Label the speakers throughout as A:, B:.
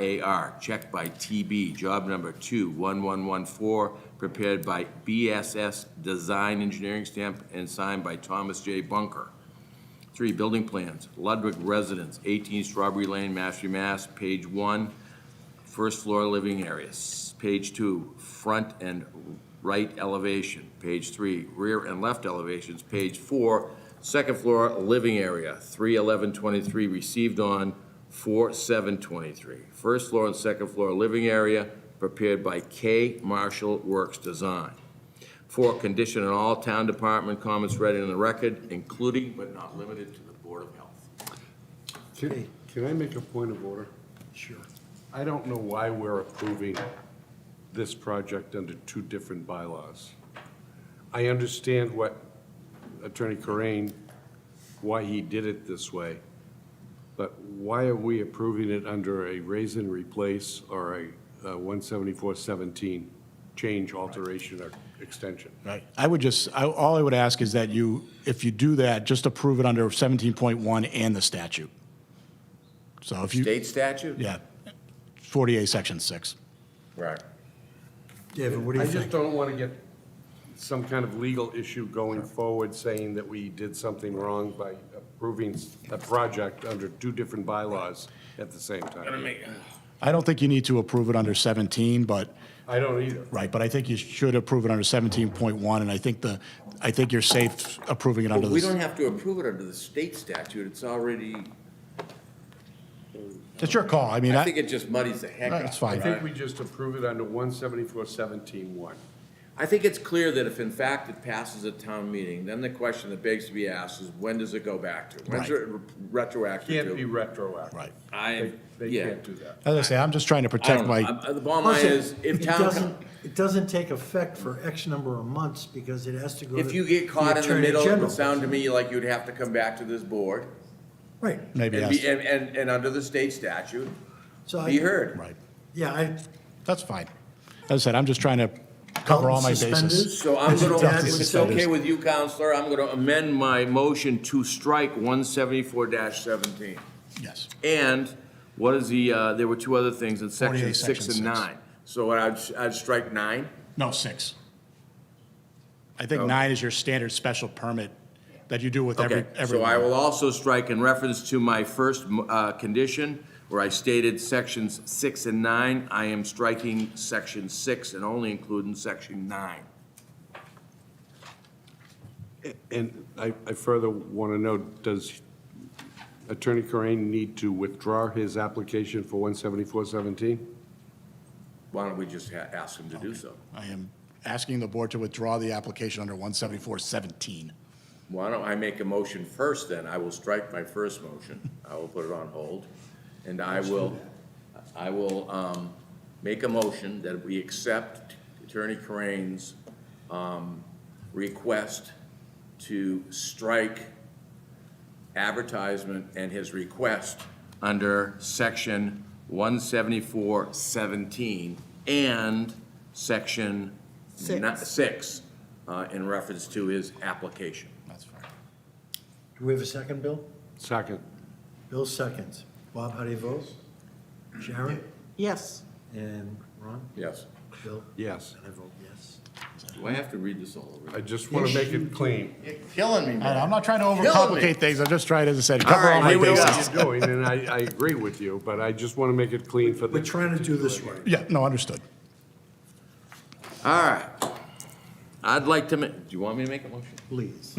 A: RAR, checked by TB, job number 21114, prepared by BSS Design Engineering Stamp and signed by Thomas J. Bunker. Three, building plans, Ludwig Residence, 18 Strawberry Lane, Mashpee, Mass., page one, first floor living areas. Page two, front and right elevation. Page three, rear and left elevations. Page four, second floor living area, 31123, received on 4723. First floor and second floor living area, prepared by K. Marshall Works Design. Four, condition on all town department comments read in the record, including but not limited to the Board of Health.
B: Can can I make a point of order? Sure. I don't know why we're approving this project under two different bylaws. I understand what Attorney Corain, why he did it this way, but why are we approving it under a raise and replace or a uh, 174-17 change, alteration, or extension?
C: Right. I would just, I, all I would ask is that you, if you do that, just approve it under seventeen point one and the statute. So if you,
A: State statute?
C: yeah, forty-eight, section six.
A: Right.
D: David, what do you
B: I just
D: think?
B: don't want to get some kind of legal issue going forward saying that we did something wrong by approving a project under two different bylaws at the same time.
C: I don't think you need to approve it under seventeen, but,
B: I don't either.
C: right, but I think you should approve it under seventeen point one, and I think the, I think you're safe approving it under
A: But we
C: the,
A: don't have to approve it under the state statute, it's already,
C: it's your call. I mean,
A: I
C: I,
A: think it just muddies the heck
C: Right,
A: out.
C: it's
B: I
C: fine.
B: think we just approve it under one seventy-four seventeen one.
A: I think it's clear that if in fact it passes a town meeting, then the question that begs to be asked is, when does it go back to? When's
C: Right.
A: it re- retroactive
B: Can't be
A: to?
B: retroactive.
C: right.
A: I,
B: They, they
A: yeah.
B: can't do that.
C: As I say, I'm just trying to
A: I don't
C: protect
A: know.
C: my,
A: I'm- The bottom line
D: Plus, it-
A: is, if
D: it
A: town,
D: doesn't-
A: co-
D: It doesn't take effect for X number of months because it has to go to.
A: if you get caught in the
D: Attorney
A: middle, it
D: General.
A: would sound to me like you'd have to come back to this board.
D: Right.
C: maybe,
A: And be,
C: yes.
A: and, and, and under the state statute,
D: So
A: be
D: I,
A: heard.
C: right.
D: yeah, I.
C: That's fine. As I said, I'm just trying to cover all my bases.
A: So I'm
D: As your
A: gonna,
D: dad
A: if
D: would
A: it's
D: say.
A: okay with you, counselor, I'm gonna amend my motion to strike one seventy-four seventeen.
C: Yes.
A: And what is the, uh, there were two other things in section
C: 48,
A: six and
C: section six.
A: nine. So I'd, I'd strike nine?
C: No, six. I
A: Oh.
C: think nine is your standard special permit that you do with every,
A: Okay,
C: every.
A: so I will also strike in reference to my first, uh, condition, where I stated sections six and nine, I am striking section six and only including section nine.
B: And I, I further want to know, does Attorney Corain need to withdraw his application for one seventy-four seventeen?
A: Why don't we just ha- ask him to do so?
C: I am asking the board to withdraw the application under one seventy-four seventeen.
A: Why don't I make a motion first then? I will strike my first motion. I will put it on hold. And I will, I will, um, make a motion that we accept Attorney Corain's, um, request to strike advertisement and his request under section one seventy-four seventeen and section ni-
D: Six.
A: Six, uh, in reference to his application.
C: That's fine.
D: Do we have a second, Bill?
B: Second.
D: Bill seconds. Bob, how do you vote? Sharon?
E: Yes.
D: And Ron?
A: Yes.
D: Bill?
B: Yes.
D: And I vote yes.
A: Do I have to read this all over?
B: I just want to make it clean.
A: You're killing me,
C: I know, I'm not trying to
A: Killing me.
C: overcomplicate things. I'm just trying, as I said, cover
A: right,
C: all my
A: here we
C: bases.
A: are.
B: what you're doing, and I, I agree with you, but I just want to make it clean for
D: We're
B: the,
D: trying to do this right.
C: Yeah, no, understood.
A: All right. I'd like to ma, do you want me to make a motion?
D: Please.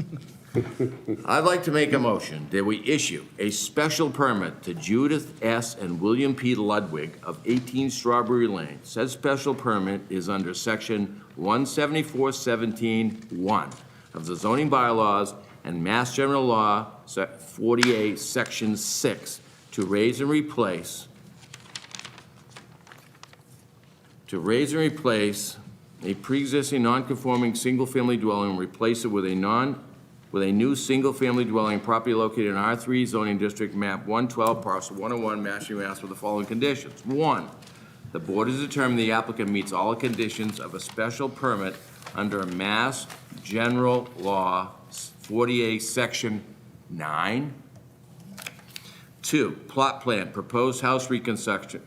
A: I'd like to make a motion that we issue a special permit to Judith S. and William P. Ludwig of 18 Strawberry Lane. Said special permit is under section 174-17-1 of the zoning bylaws and Mass General Law, Se- 48, section 6, to raise and replace, to raise and replace a pre-existing non-conforming single-family dwelling and replace it with a non, with a new single-family dwelling property located in R3 zoning district map 112 parcel 101 Mashpee, Mass. with the following conditions. One, the board has determined the applicant meets all the conditions of a special permit under Mass General Law 48, Section 9. Two, plot plan, proposed house reconstruction,